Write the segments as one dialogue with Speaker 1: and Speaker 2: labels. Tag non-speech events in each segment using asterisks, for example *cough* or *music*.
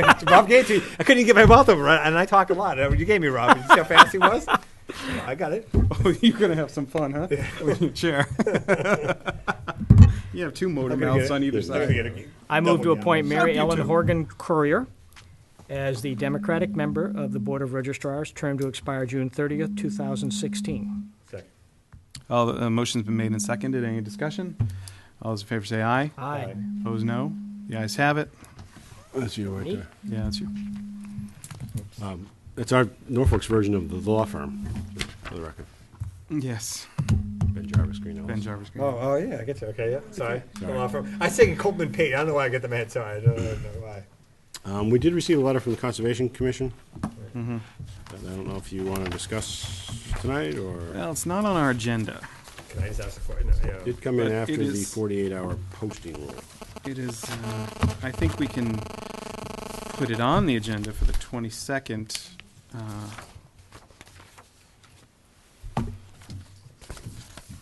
Speaker 1: Rob gave it to me. I couldn't even get my mouth over it, and I talk a lot. You gave me Rob. You see how fast he was? I got it.
Speaker 2: Oh, *laughs* you're gonna have some fun, huh? With your
Speaker 1: *laughs*
Speaker 2: chair. *laughs* You have two motor
Speaker 1: I'm gonna
Speaker 2: mounts
Speaker 1: get
Speaker 2: on
Speaker 1: it.
Speaker 2: either
Speaker 1: I'm gonna
Speaker 2: side.
Speaker 1: get it.
Speaker 3: I move to
Speaker 1: Double
Speaker 3: appoint
Speaker 1: down.
Speaker 3: Mary
Speaker 1: Fuck you
Speaker 3: Ellen
Speaker 1: too.
Speaker 3: Horgan Courier as the Democratic member of the Board of Registrars, term to expire June 30th, 2016.
Speaker 1: Second.
Speaker 2: All the, uh, motion's been made and seconded. Any discussion? All those in favor say aye.
Speaker 3: Aye.
Speaker 2: Opposed, no. The ayes have it.
Speaker 4: That's you right
Speaker 3: Neat.
Speaker 4: there.
Speaker 2: Yeah, that's you.
Speaker 4: That's our Norfolk's version of the law firm, for the record.
Speaker 2: Yes,
Speaker 4: Ben Jarvis, Green Ellis.
Speaker 2: Ben Jarvis. Green.
Speaker 1: Oh, oh yeah, I get you. Okay, yeah. Sorry. The law firm. I sing Coleman Pate. I don't know why I get the mad sorry. I don't, I don't know why.
Speaker 4: Um, we did receive a letter from the Conservation Commission.
Speaker 2: Mm-hmm.
Speaker 4: And I don't know if you want to discuss tonight, or
Speaker 2: Well, it's not on our agenda.
Speaker 1: Can I just ask a question? No,
Speaker 4: it
Speaker 1: yeah.
Speaker 4: did come in
Speaker 2: But it
Speaker 4: after the
Speaker 2: is-
Speaker 4: forty-eight hour posting rule.
Speaker 2: It is, uh, I think we can put it on the agenda for the 22nd. uh,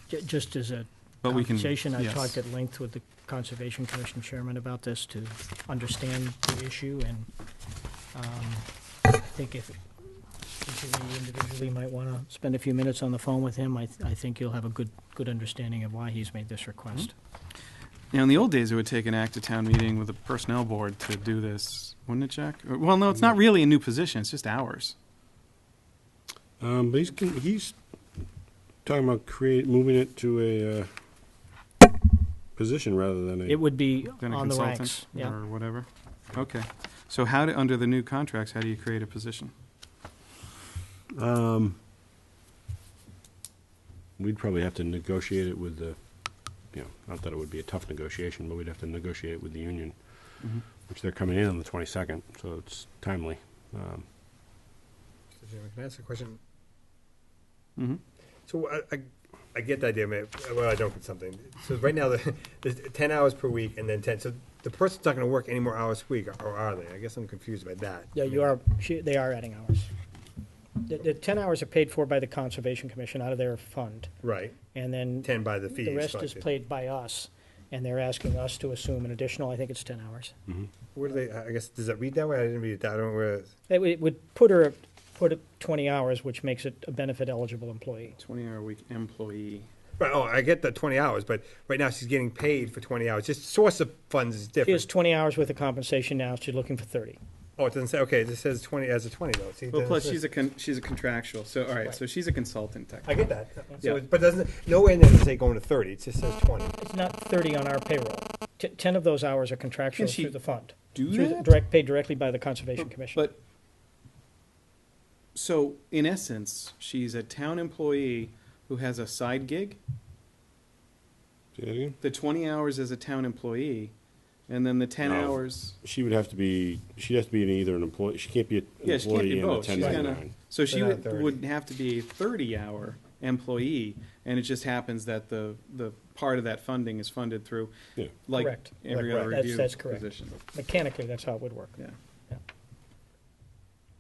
Speaker 3: Ju- Just as a
Speaker 2: But we can-
Speaker 3: conversation, I
Speaker 2: yes.
Speaker 3: talked at length with the Conservation Commission Chairman about this to understand the issue, and um, I think if each of you individually might want to spend a few minutes on the phone with him, I th- I think you'll have a good, good understanding of why he's made this request.
Speaker 2: Mm-hmm. Now, in the old days, it would take an act of town meeting with a personnel board to do this, wouldn't it, Jack? Or- Well, no, it's
Speaker 3: Mm.
Speaker 2: not really a new position, it's just hours.
Speaker 4: Um, but he's, con- he's talking about create, moving it to a, uh, position rather than
Speaker 3: It
Speaker 4: a,
Speaker 3: would be
Speaker 2: Then a
Speaker 3: on the
Speaker 2: consultant
Speaker 3: ranks, yeah.
Speaker 2: Or whatever. Okay. So how do, under the new contracts, how do you create a position?
Speaker 4: we'd probably have to negotiate it with the, you know, not that it would be a tough negotiation, but we'd have to negotiate it with the union,
Speaker 2: Mm-hmm.
Speaker 4: which they're coming in on the twenty-second, so it's timely. Um,
Speaker 1: Mr. Chairman, Can I ask a question?
Speaker 2: Mm-hmm.
Speaker 1: So I, I, I get the idea, man. Well, I don't get something. So right now, the, *laughs* the ten hours per week and then ten. So the person's not going to work any more hours a week, or are they? I guess I'm confused by that.
Speaker 3: Yeah, you are, she- they are adding hours. The, the 10 hours are paid for by the Conservation Commission out of their fund,
Speaker 1: Right.
Speaker 3: and then
Speaker 1: Ten by the fees.
Speaker 3: the rest
Speaker 1: fuck
Speaker 3: is
Speaker 1: it.
Speaker 3: played by us, and they're asking us to assume an additional, I think it's 10 hours.
Speaker 1: Where do they? I guess does it read that way? I didn't read it. That, I don't know where. It is.
Speaker 3: It would- it would put her, put it 20 hours, which makes it a benefit eligible employee.
Speaker 2: 20-hour-week employee.
Speaker 1: Right, oh, I get the twenty hours, but right now she's getting paid for twenty hours. Just source of funds is
Speaker 3: She has
Speaker 1: different.
Speaker 3: 20 hours worth of compensation now, she's looking for 30.
Speaker 1: Oh, it doesn't say. Okay, it just says twenty as a twenty though. See, it
Speaker 2: Well,
Speaker 1: doesn't
Speaker 2: plus,
Speaker 1: say-
Speaker 2: she's a, con- she's a contractual, so, all right, so she's a consultant
Speaker 1: I
Speaker 2: technically.
Speaker 1: get that. So,
Speaker 2: Yeah.
Speaker 1: it- but doesn't nowhere in there does it say going to thirty. It just says twenty.
Speaker 3: It's not 30 on our payroll. T- 10 of those hours are contractual
Speaker 2: Can she
Speaker 3: through the fund.
Speaker 2: do
Speaker 3: Through the-
Speaker 2: that?
Speaker 3: Direct, paid directly by the Conservation Commission.
Speaker 2: But, so in essence, she's a town employee who has a side gig,
Speaker 4: say that again?
Speaker 2: the twenty hours as a town employee, and then the ten
Speaker 4: No.
Speaker 2: hours.
Speaker 4: She would have to be, she'd have to be an either an employee, she can't be an
Speaker 2: Yeah, she can't
Speaker 4: employee
Speaker 2: be
Speaker 4: and a
Speaker 2: both. She's
Speaker 4: ten
Speaker 2: gonna,
Speaker 4: ninety-nine.
Speaker 2: so she
Speaker 1: They're
Speaker 2: would,
Speaker 1: not 30.
Speaker 2: would have to be a thirty-hour employee, and it just happens that the, the part of that funding is funded through,
Speaker 4: Yeah.
Speaker 2: like,
Speaker 3: Correct.
Speaker 2: every
Speaker 1: Right,
Speaker 2: other
Speaker 1: right.
Speaker 3: That's-
Speaker 2: review
Speaker 3: that's correct.
Speaker 2: position.
Speaker 3: Mechanically, that's how it would work.
Speaker 2: Yeah.
Speaker 3: Yeah.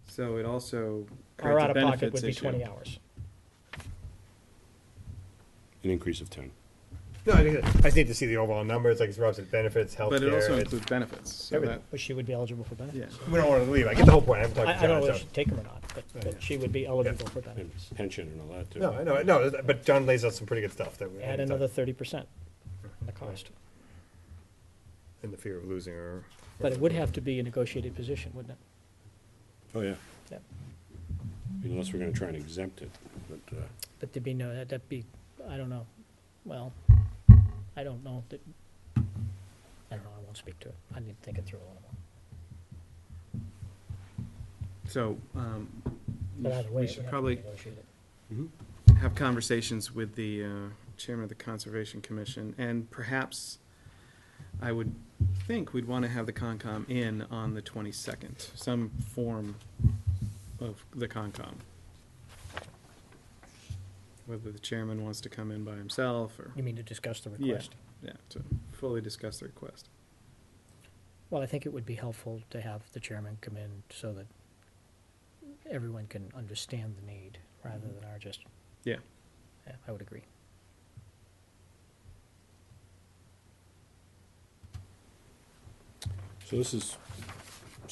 Speaker 2: So it also
Speaker 3: Our
Speaker 2: creates a
Speaker 3: out-of-pocket would
Speaker 2: benefits
Speaker 3: be
Speaker 2: issue.
Speaker 3: 20 hours.
Speaker 4: An increase of ten.
Speaker 1: No, I, think- I just need to see the overall numbers. Like it's Rob said, benefits, healthcare.
Speaker 2: But it also
Speaker 1: it's-
Speaker 2: includes benefits, so
Speaker 1: Everything.
Speaker 2: that,
Speaker 3: But she would be eligible for benefits.
Speaker 2: yeah.
Speaker 1: we don't want to leave. I get the whole point. I haven't talked
Speaker 3: I,
Speaker 1: to
Speaker 3: I
Speaker 1: John.
Speaker 3: don't know if
Speaker 1: so-
Speaker 3: she'd take them or not, but, but she would be eligible for benefits.
Speaker 4: And pension and all that, too.
Speaker 1: No, I know, no. But John lays out some pretty good stuff that we
Speaker 3: Add another thirty percent on the cost.
Speaker 1: in the fear of losing her.
Speaker 3: But it would have to be a negotiated position, wouldn't it?
Speaker 4: Oh, yeah,
Speaker 3: Yep.
Speaker 4: unless we're gonna try and exempt it, but, uh,
Speaker 3: But there'd be no, that'd- that'd be, I don't know, well, I don't know, that, I don't know, I won't speak to it. I need to think it through a little more.
Speaker 2: So, um,
Speaker 3: But either way,
Speaker 2: we
Speaker 3: it would
Speaker 2: should
Speaker 3: have to be
Speaker 2: probably
Speaker 3: negotiated.
Speaker 2: have conversations with the, uh, chairman of the Conservation Commission, and perhaps I would think we'd wanna have the Concom in on the twenty-second, some form of the Concom. Whether the chairman wants to come in by himself, or,
Speaker 3: You mean to discuss the
Speaker 2: Yeah.
Speaker 3: request?
Speaker 2: yeah, to fully discuss the request.
Speaker 3: Well, I think it would be helpful to have the chairman come in so that everyone can understand the need rather than our just.
Speaker 2: Yeah.
Speaker 3: Yeah, I would agree.
Speaker 4: so this is